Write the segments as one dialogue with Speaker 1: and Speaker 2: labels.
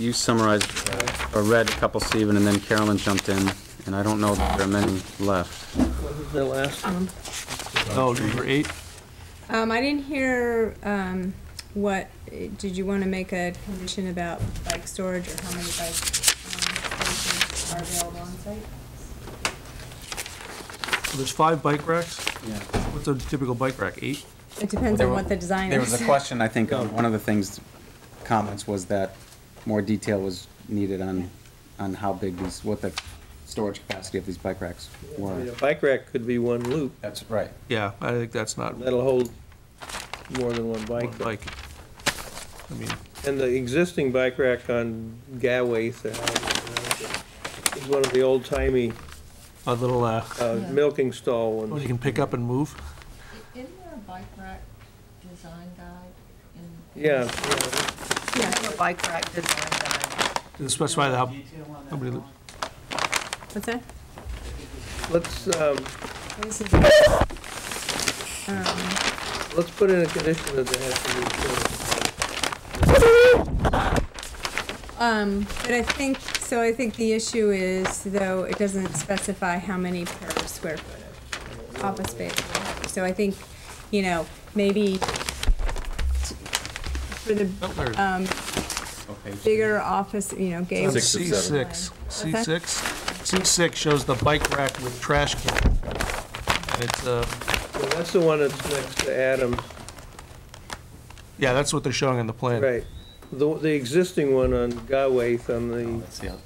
Speaker 1: you summarized uh, or read a couple, Stephen, and then Carolyn jumped in, and I don't know that there are many left.
Speaker 2: The last one?
Speaker 3: Oh, number eight?
Speaker 4: Um, I didn't hear, um, what, did you wanna make a condition about bike storage or how many bike, um, spaces are available on site?
Speaker 3: So there's five bike racks?
Speaker 1: Yeah.
Speaker 3: What's a typical bike rack, eight?
Speaker 4: It depends on what the design is.
Speaker 1: There was a question, I think, on one of the things, comments was that more detail was needed on, on how big these, what the storage capacity of these bike racks were.
Speaker 2: A bike rack could be one loop.
Speaker 1: That's right.
Speaker 3: Yeah, I think that's not one
Speaker 2: That'll hold more than one bike.
Speaker 3: bike. I mean,
Speaker 2: And the existing bike rack on Gaways uh, is one of the old-timey
Speaker 3: a little, uh,
Speaker 2: uh, milking stall
Speaker 3: what
Speaker 2: ones.
Speaker 3: you can pick up and move?
Speaker 5: Isn't there a bike rack design guide in?
Speaker 2: Yeah,
Speaker 5: A bike rack design guide.
Speaker 3: Does it specify how, how many, lo-
Speaker 4: What's that?
Speaker 2: let's, um,
Speaker 4: This is- Um,
Speaker 2: let's put in a condition that there has to be. uh,
Speaker 4: Um, but I think, so I think the issue is, though, it doesn't specify how many per square foot of office space. So I think, you know, maybe t- for the,
Speaker 3: oh, there it is.
Speaker 4: um, bigger office, you know, gay.
Speaker 6: Six or seven.
Speaker 3: C6, C6, C6 shows the bike rack with trash can. And it's, uh,
Speaker 2: well, That's the one that's next to Adam,
Speaker 3: yeah, that's what they're showing in the plan.
Speaker 2: right. The, the existing one on Gaways on the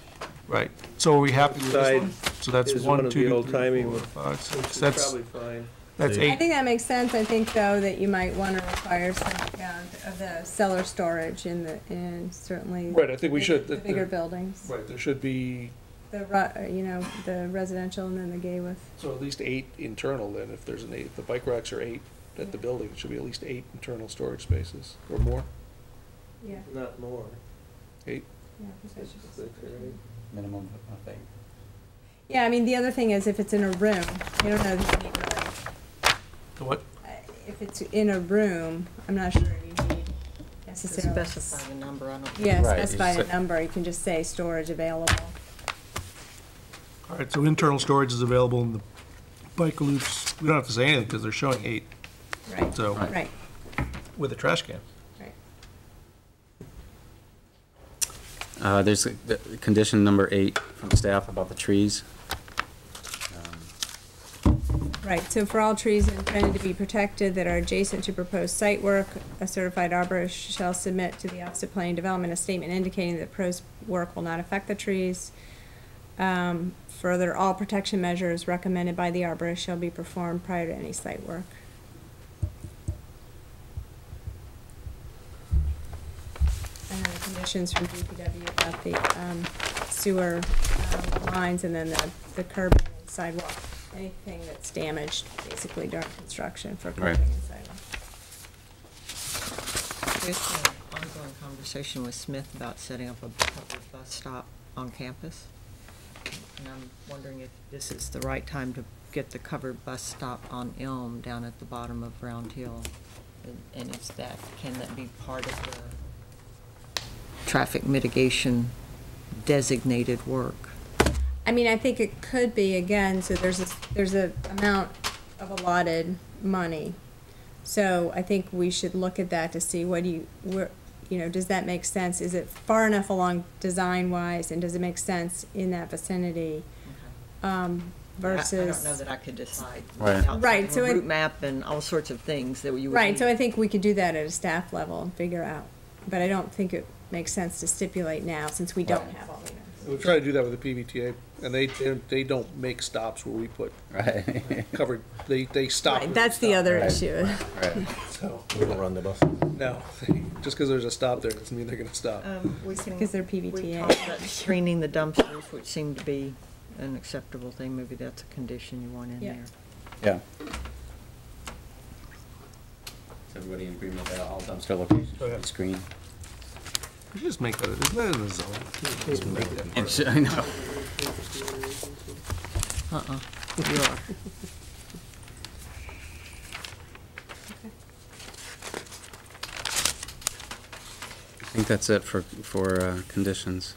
Speaker 3: Right. So are we happy with this
Speaker 2: Side
Speaker 3: one? So that's
Speaker 2: is one of
Speaker 3: one,
Speaker 2: the
Speaker 3: two,
Speaker 2: old-timey
Speaker 3: three, four,
Speaker 2: ones.
Speaker 3: five, six.
Speaker 2: It's
Speaker 3: That's,
Speaker 2: probably fine.
Speaker 3: that's
Speaker 4: I
Speaker 3: eight.
Speaker 4: think that makes sense. I think, though, that you might want to require some amount of the cellar storage in the, in certainly.
Speaker 3: Right, I think we should.
Speaker 4: the Bigger buildings,
Speaker 3: Right, there should be,
Speaker 4: the, ru- uh, you know, the residential and then the gay with.
Speaker 3: so at least eight internal then, if there's an eight, if the bike racks are eight at the building, it should be at least eight internal storage spaces or more.
Speaker 4: Yeah.
Speaker 2: Not more.
Speaker 4: yeah, I think that should be-
Speaker 2: Six or eight.
Speaker 1: Minimum, I think.
Speaker 4: Yeah, I mean, the other thing is if it's in a room, you don't know that you need really,
Speaker 3: The what?
Speaker 4: I- if it's in a room, I'm not sure you need
Speaker 5: To
Speaker 4: necessarily.
Speaker 5: specify the number, I don't.
Speaker 4: Yeah,
Speaker 6: Right, you
Speaker 4: specify a
Speaker 6: say-
Speaker 4: number. You can just say storage available.
Speaker 3: All right, so internal storage is available in the bike loops. We don't have to say anything because they're showing eight,
Speaker 4: Right,
Speaker 3: so,
Speaker 4: right,
Speaker 3: with a trash can.
Speaker 4: right.
Speaker 1: Uh, there's a- the- condition number eight from staff about the trees. Um,
Speaker 4: Right, so for all trees intended to be protected that are adjacent to proposed site work, a certified arborist shall submit to the Office of Planning Development a statement indicating that proposed work will not affect the trees. Um, further, all protection measures recommended by the arborist shall be performed prior to any site work. And then the conditions from DPW about the, um, sewer um, lines and then the, the curb and sidewalk, anything that's damaged basically during construction for curbing
Speaker 1: Right.
Speaker 4: and sidewalk.
Speaker 5: There's an ongoing conversation with Smith about setting up a public bus stop on campus. And I'm wondering if this is the right time to get the covered bus stop on Elm down at the bottom of Round Hill. And- And is that, can that be part of the traffic mitigation designated work?
Speaker 4: I mean, I think it could be, again, so there's a, there's a amount of allotted money. So I think we should look at that to see what do you, where, you know, does that make sense? Is it far enough along design-wise, and does it make sense in that vicinity? Um,
Speaker 5: I-
Speaker 4: versus.
Speaker 5: I don't know that I could decide.
Speaker 1: Right.
Speaker 5: without
Speaker 4: Right, so
Speaker 5: a
Speaker 4: it-
Speaker 5: Route map and all sorts of things that you would.
Speaker 4: Right, so
Speaker 5: need.
Speaker 4: I think we could do that at a staff level and figure out, but I don't think it makes sense to stipulate now, since we don't have all the numbers.
Speaker 7: We try to do that with the PVTA, and they, they- they don't make stops where we put
Speaker 1: Right.
Speaker 7: covered, they, they stop.
Speaker 4: Right, That's the other issue.
Speaker 1: Right.
Speaker 7: So,
Speaker 6: We don't run the bus.
Speaker 7: no, just because there's a stop there, doesn't mean they're gonna stop.
Speaker 3: Uh,
Speaker 5: Um, we can.
Speaker 4: 'Cause they're
Speaker 5: we
Speaker 4: PVTA.
Speaker 5: talked about Screening the dumpsters, which seemed to be an acceptable thing, maybe that's a condition you want in
Speaker 4: Yeah.
Speaker 5: there.
Speaker 1: Yeah. Is everybody in agreement that all dumpster locations
Speaker 3: Go
Speaker 1: should
Speaker 3: ahead.
Speaker 1: be screened?
Speaker 3: We should just make that, isn't that in the zone? Just make that part of it.
Speaker 1: I know.
Speaker 5: Uh-uh, you are.
Speaker 1: I think that's it for, for uh, conditions.